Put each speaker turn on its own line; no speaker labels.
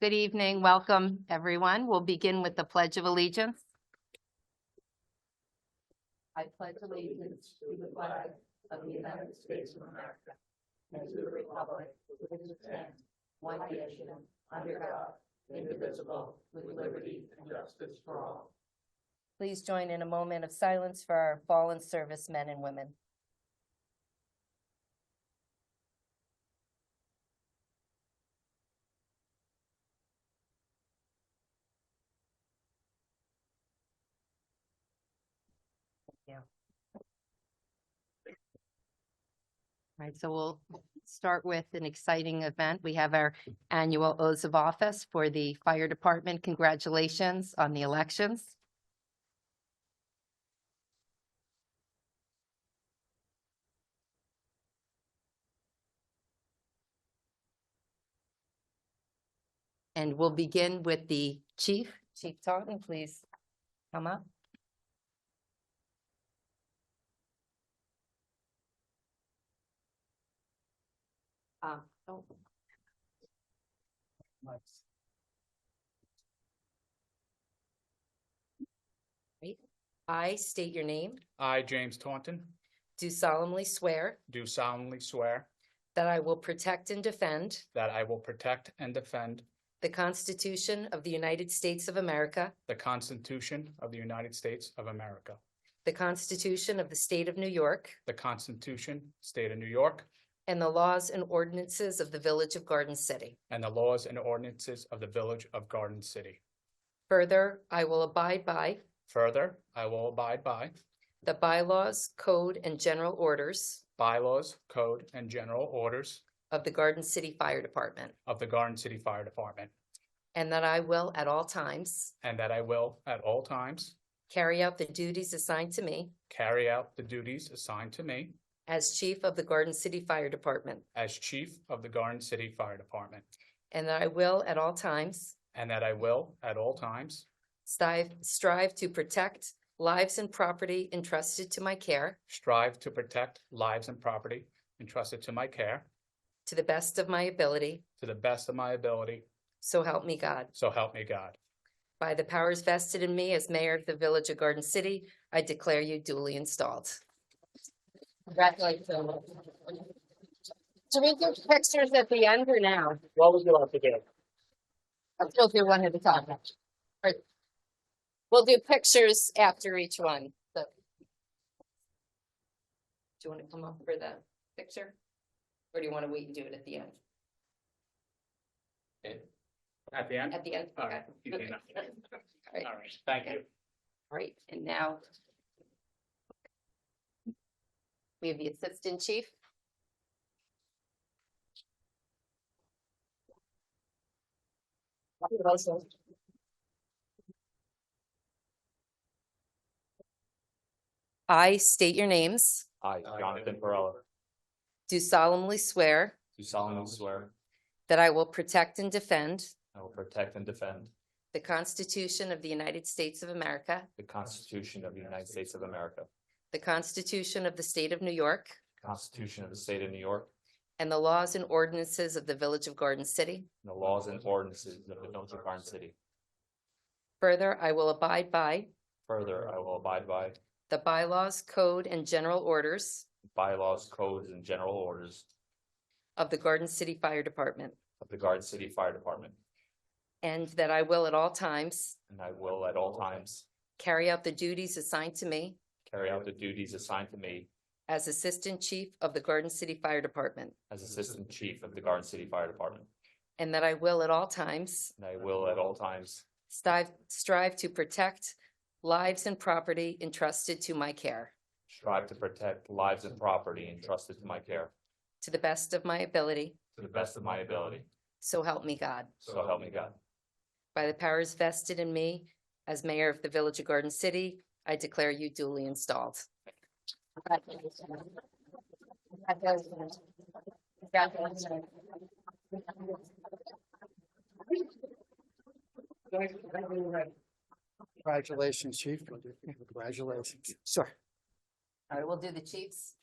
Good evening, welcome, everyone. We'll begin with the Pledge of Allegiance. I pledge allegiance to the flag of the United States of America and to the republic for which it stands, one nation, under God, indivisible, with liberty and justice for all. Please join in a moment of silence for our fallen servicemen and women. Right, so we'll start with an exciting event. We have our annual oaths of office for the fire department. Congratulations on the elections. And we'll begin with the chief. Chief Taunton, please come up. Um, oh. Great. I state your name,
I, James Taunton,
do solemnly swear
do solemnly swear
that I will protect and defend
that I will protect and defend
the Constitution of the United States of America,
the Constitution of the United States of America,
the Constitution of the State of New York,
the Constitution, State of New York,
and the laws and ordinances of the Village of Garden City.
and the laws and ordinances of the Village of Garden City.
Further, I will abide by
Further, I will abide by
the bylaws, code, and general orders
bylaws, code, and general orders
of the Garden City Fire Department,
of the Garden City Fire Department,
and that I will at all times
and that I will, at all times,
Carry out the duties assigned to me
carry out the duties assigned to me
as Chief of the Garden City Fire Department,
as Chief of the Garden City Fire Department,
and that I will at all times
and that I will, at all times,
strive, strive to protect lives and property entrusted to my care
Strive to protect lives and property entrusted to my care
to the best of my ability,
to the best of my ability,
so help me God.
so help me God.
By the powers vested in me as Mayor of the Village of Garden City, I declare you duly installed. Congratulations. Do we do pictures at the end or now?
What would you like to do?
I'll still do one at a time. Right. We'll do pictures after each one, so. Do you want to come up for the picture? Or do you want to wait and do it at the end?
At the end?
At the end?
All
Okay.
right. easy enough.
All right.
All right, thank you.
Right, and now. We have the Assistant Chief. I state your names,
I, Jonathan Perella,
do solemnly swear
do solemnly swear
that I will protect and defend
I will protect and defend
the Constitution of the United States of America,
the Constitution of the United States of America,
the Constitution of the State of New York,
the Constitution of the State of New York,
and the laws and ordinances of the Village of Garden City.
and the laws and ordinances of the Village of Garden City.
Further, I will abide by
Further, I will abide by
the bylaws, code, and general orders
bylaws, codes, and general orders
of the Garden City Fire Department,
of the Garden City Fire Department,
and that I will at all times
and I will at all times
carry out the duties assigned to me
carry out the duties assigned to me
as Assistant Chief of the Garden City Fire Department,
as Assistant Chief of the Garden City Fire Department,
and that I will at all times
and I will at all times
strive, strive to protect lives and property entrusted to my care,
strive to protect lives and property entrusted to my care
to the best of my ability,
to the best of my ability,
so help me God.
so help me God.
By the powers vested in me as mayor of the Village of Garden City, I declare you duly installed.
Congratulations, chief. Congratulations. Sir.
All right, we'll do the chiefs.